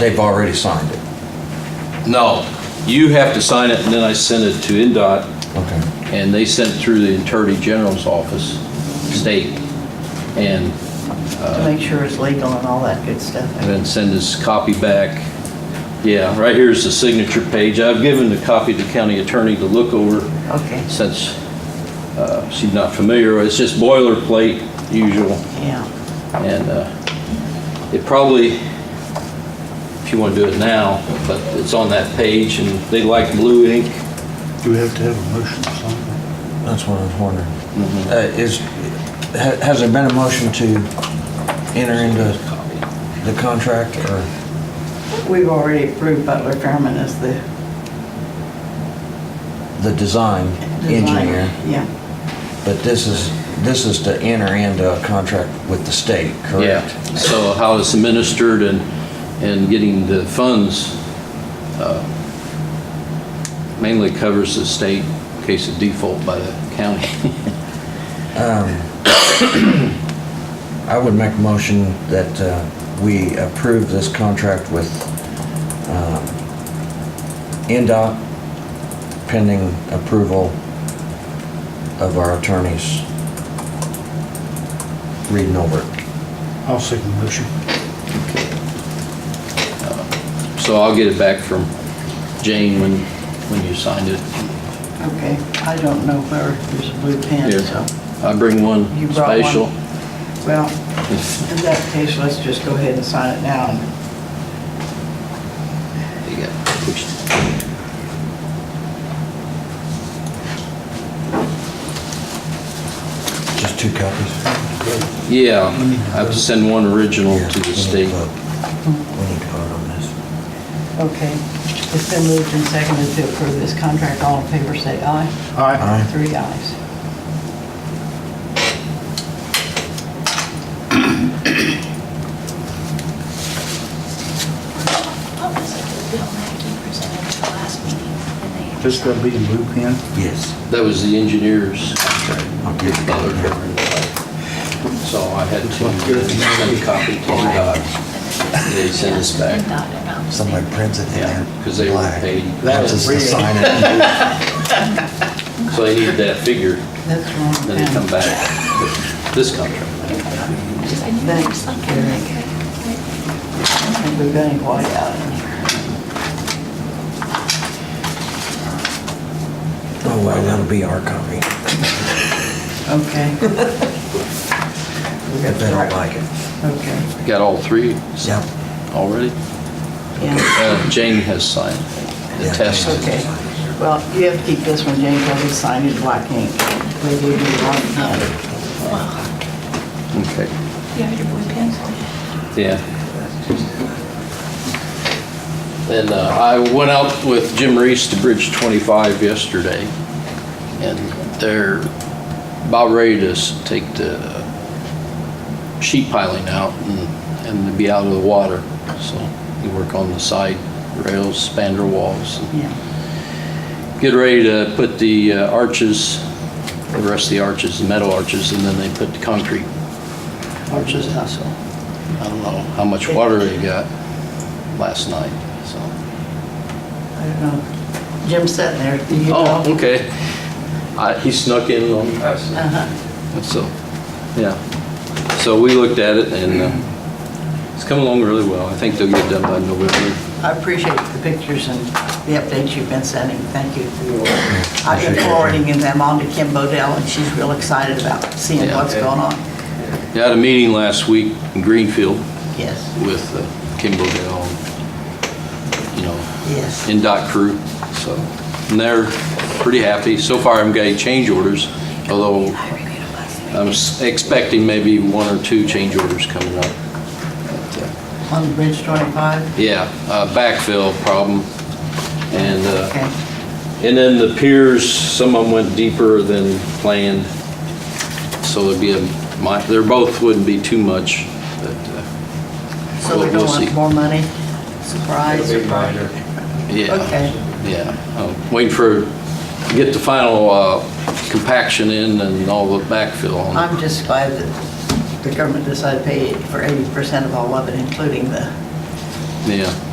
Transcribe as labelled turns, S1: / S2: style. S1: They've already signed it.
S2: No, you have to sign it, and then I send it to NDOT,
S1: Okay.
S2: and they send it through the Attorney General's office, state, and
S3: to make sure it's legal and all that good stuff.
S2: then send this copy back. Yeah, right here's the signature page. I've given the copy to county attorney to look over
S3: Okay,
S2: since uh, she's not familiar. It's just boilerplate, usual.
S3: yeah,
S2: And uh, it probably, if you want to do it now, but it's on that page, and they like blue ink.
S4: Do we have to have a motion or something?
S1: That's what I was wondering. Uh, Is, ha- has there been a motion to enter into the contract or?
S3: we've already approved Butler Fairman as the
S1: the design
S3: designer.
S1: engineer,
S3: Yeah,
S1: but this is, this is to enter into a contract with the state,
S2: Yeah,
S1: correct?
S2: so how it's administered and, and getting the funds uh, mainly covers the state in case of default by the county.
S1: I would make a motion that uh, we approve this contract with um, NDOT pending approval of our attorneys reading over it.
S4: I'll second the motion.
S2: So I'll get it back from Jane when, when you signed it.
S3: okay. I don't know where, there's a blue pen,
S2: Here.
S3: so,
S2: I bring one
S3: You brought one?
S2: spatial.
S3: well, in that case, let's just go ahead and sign it now.
S2: You got pushed.
S1: Just two copies?
S2: Yeah, I have to send one original
S1: Yeah,
S2: to
S1: we
S2: the
S1: need
S2: state.
S1: vote. We need to vote on this.
S3: Okay, it's been moved and seconded to approve this contract. All in favor, say aye.
S4: Aye.
S1: Aye.
S3: Three ayes.
S5: What was it that Bill Mackey presented at the last meeting? and they-
S4: Just gotta be in blue pen.
S1: Yes.
S2: That was the engineer's contract.
S1: I'll give it
S2: Butler
S1: back.
S2: Fairman. So I had to send a copy to Dodd. They send us back.
S1: Somebody prints it in
S2: Yeah,
S1: there.
S2: because they were
S1: black.
S2: paid.
S4: That
S1: Wants
S4: was
S1: us to
S4: real.
S1: sign it.
S2: So they need that figure,
S3: That's the wrong
S2: then they come
S3: pen.
S2: back with this contract.
S5: Because I knew there was something like that.
S3: I don't think we've got any white out in here.
S1: Oh, well, that'll be our copy.
S3: Okay. We
S1: I
S3: got the
S1: bet I
S3: right-
S1: like it.
S3: Okay,
S2: Got all three
S1: Yep.
S2: already?
S3: yeah.
S2: Uh, Jane has signed the
S1: Yeah.
S2: test.
S3: Okay, well, you have to keep this one, James, I'll be signing black ink. We do need one hand.
S2: Okay,
S5: You have your blue pencil?
S2: yeah. And uh, I went out with Jim Reese to Bridge 25 yesterday, and they're about ready to s- take the sheet piling out and, and to be out of the water. So you work on the side rails, spandrel walls, and
S3: Yeah,
S2: get ready to put the uh, arches, the rest of the arches, the metal arches, and then they put the concrete arches in, so. I don't know how much water they got last night, so.
S3: I don't know. Jim's sitting there, do you know?
S2: Oh, okay. I- He snuck in on us,
S3: Uh-huh,
S2: so, yeah. So we looked at it and uh, it's come along really well. I think they'll get it done by November.
S3: I appreciate the pictures and the updates you've been sending, thank you for your, I've been forwarding them on to Kim Bodell, and she's real excited about seeing
S2: Yeah.
S3: what's going on.
S2: Yeah, I had a meeting last week in Greenfield
S3: Yes,
S2: with uh, Kim Bodell, you know,
S3: yes,
S2: in dot crew, so, and they're pretty happy. So far, I'm getting change orders, although
S5: I reviewed it last night.
S2: I'm s- expecting maybe one or two change orders coming up. But, uh,
S3: on the Bridge 25,
S2: Yeah, uh, backfill problem, and, uh,
S3: okay.
S2: and then the piers, some of them went deeper than planned, so there'd be a, mi- they're both wouldn't be too much, but, uh,
S3: So we
S2: We'll-
S3: don't
S2: we'll see.
S3: want more money? Surprise, surprise.
S2: yeah.
S3: Okay.
S2: Yeah, I'm waiting for, get the final uh, compaction in and all the backfill on.
S3: I'm just glad that the government decided to pay for 80% of all of it, including the
S2: Yeah,